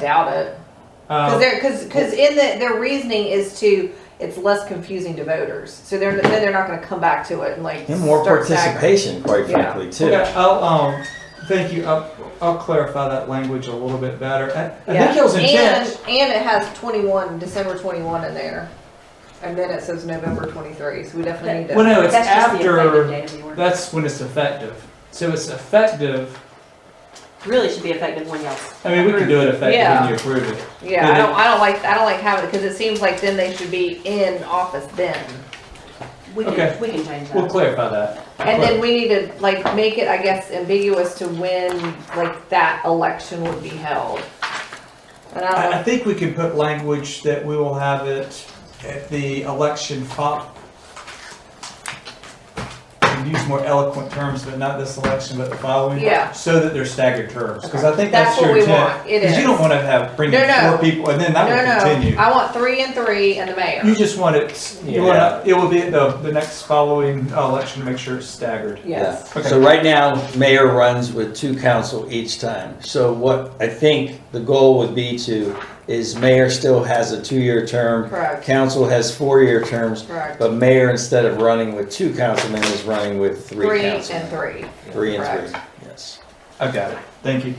doubt it. Because Um, they're, because, because in the, their reasoning is to, it's less confusing to voters. So they're, then they're not gonna come back to it and like. And more start staggering. participation, quite Yeah. frankly, too. okay, I'll, um, thank you, I'll, I'll clarify that language a little bit better. I, I Yeah. think it was And, intent, and it has twenty-one, December twenty-one in there. And then it says November twenty-three, so we definitely need to. well, no, it's That's just the effective after, date of the order. that's when it's effective. So it's effective, Really should be effective when y'all. I mean, we can do it effective Yeah. when you approve it. Yeah, I don't, I don't like, I don't like having it, because it seems like then they should be in office then. We Okay. can, we can change We'll that. clarify that. And then we need to like make it, I guess, ambiguous to when like that election would be held. And I I, I don't, think we can put language that we will have it at the election fo- and use more eloquent terms, but not this election, but the following. Yeah. So that they're staggered terms, because I think that's That's your what we intent. want. It Because you is. don't want to have, bring No, in no. four people, and then that will no, continue. no, I want three and three and the You mayor. just want it, you Yeah. want to, it will be at the, the next following uh, election, to make sure it's staggered. Yes. Yeah. So right now, mayor runs with two council each time. So what I think the goal would be to, is mayor still has a two-year term. Correct. Council has four-year terms, Correct. but mayor, instead of running with two councilmen, is running with three Three and councilmen. three. Three and three, Correct. yes. I got it, thank you.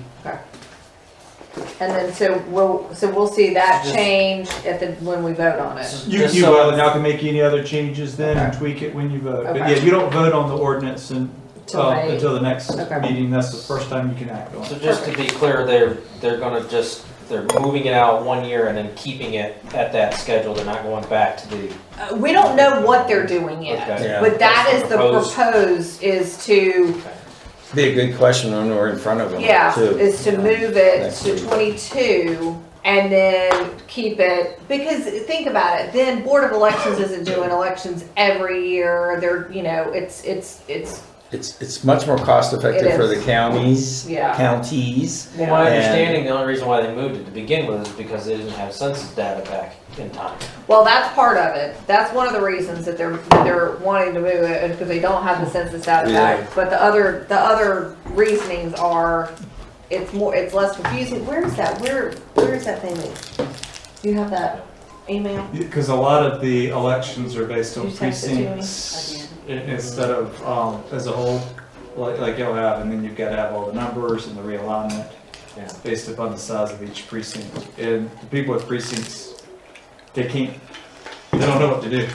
And then so we'll, so we'll see that Just- change at the, when we vote on it. You, Just you, so- uh, y'all can make any other changes then and tweak it when you vote. But Okay. yeah, you don't vote on the ordinance and, Till uh, May. until the next Okay. meeting. That's the first time you can act on it. So just to be clear, they're, they're gonna just, they're moving it out one year and then keeping it at that schedule, they're not going back to the, Uh, We don't know what they're doing yet, okay. Yeah. but that is That's the the proposed. proposed is to, Be a good question when we're in front of them, too. yeah, is to move it Next to week. twenty-two and then keep it, because think about it, then Board of Elections isn't doing elections every year, they're, you know, it's, it's, it's, It's, it's much more cost-effective It for the is. counties, Yeah. counties. Well, my And- understanding, the only reason why they moved it to begin with is because they didn't have census data back in time. well, that's part of it. That's one of the reasons that they're, that they're wanting to move it, because they don't have the census data Yeah. back. But the other, the other reasonings are, it's more, it's less confusing. Where is that? Where, where is that thing? that- Do you have that email? Because a lot of the elections are based on You text it to me? precincts i- instead of, um, as a whole, like, like you'll have, and then you've got to have all the numbers and the realignment Yeah. based upon the size of each precinct. And the people with precincts, they can't, they don't know what to do.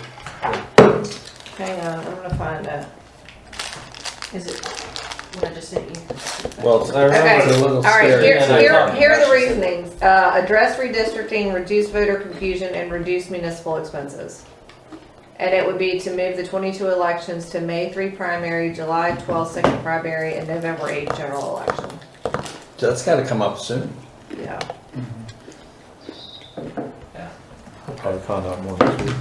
Hang on, I'm gonna find it. Is it what I just sent you? Well, it's it's a little All right, scary. here, Yeah, no, here, no. here are the reasonings. Uh, address redistricting, reduce voter confusion, and reduce municipal expenses. And it would be to move the twenty-two elections to May three primary, July 12 second primary, and November eight general election. That's gotta come up soon. Yeah. I'll probably find out more this week.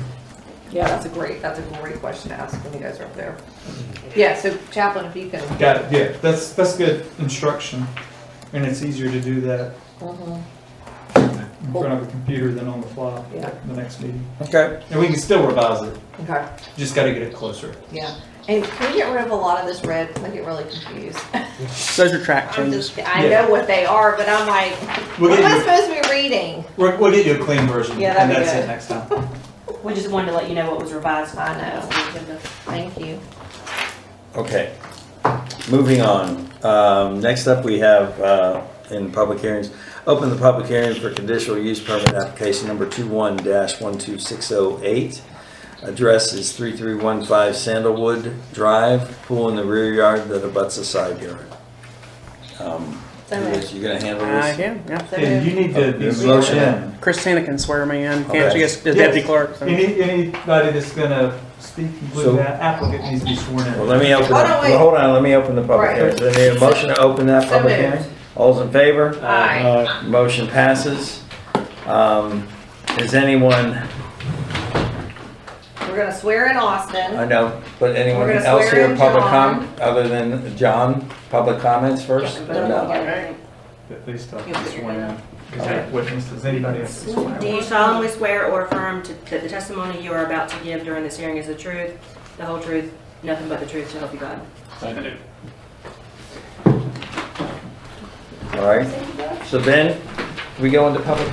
Yeah, that's a great, that's a great question to ask when you guys are up there. Mm-hmm. Yeah, so Chaplain, if you can. Got it, yeah, that's, that's good instruction, and it's easier to do that Mhm, in front of a computer than on the fly, Yeah. the next meeting. Okay. And we can still revise it, Okay, just gotta get it closer. yeah. And can we get rid of a lot of this red? 'Cause I get really confused. Those are track I'm changes. just, I Yeah. know what they are, but I'm like, We'll what am I get you, supposed to be reading? we'll, we'll get you a clean version, Yeah, that'd and be that's good. it next time. We just wanted to let you know what was revised by Uh, now. Thank you. Okay. Moving on. Um, next up, we have, uh, in public hearings, open the public hearing for conditional use permit application number two-one dash one-two-six-oh-eight. oh Address is three-three-one-five Sandalwood Drive, pool in the rear yard that abuts a side yard. Um, Liz, you gonna handle I Uh, this? can, yeah. So And you need to Oh, be there's a zoomed motion. in. Christina can swear me in, Okay. can't she, as as deputy Yes. clerk? so- Any, anybody that's gonna speak, So- including that applicant, needs to be sworn Well, in. let me open, Hold up- on, wait. hold on, let me open the public Right. hearing. Is there a motion to open that So public moved. hearing? All's in favor? Uh, Aye. Uh, Motion passes. Um, Is anyone, We're gonna swear in I Austin. know, but anyone We're gonna else swear here, in public John. com, other than John, public comments first? Yeah, but um, Or no? okay. Please stop You'll uh, be sworn in, sworn because that witness, does anybody else be sworn Do in? you solemnly swear or affirm to- that the testimony you are about to give during this hearing is the truth, the whole truth, nothing but the truth, so help you God? All right. So then, we go into public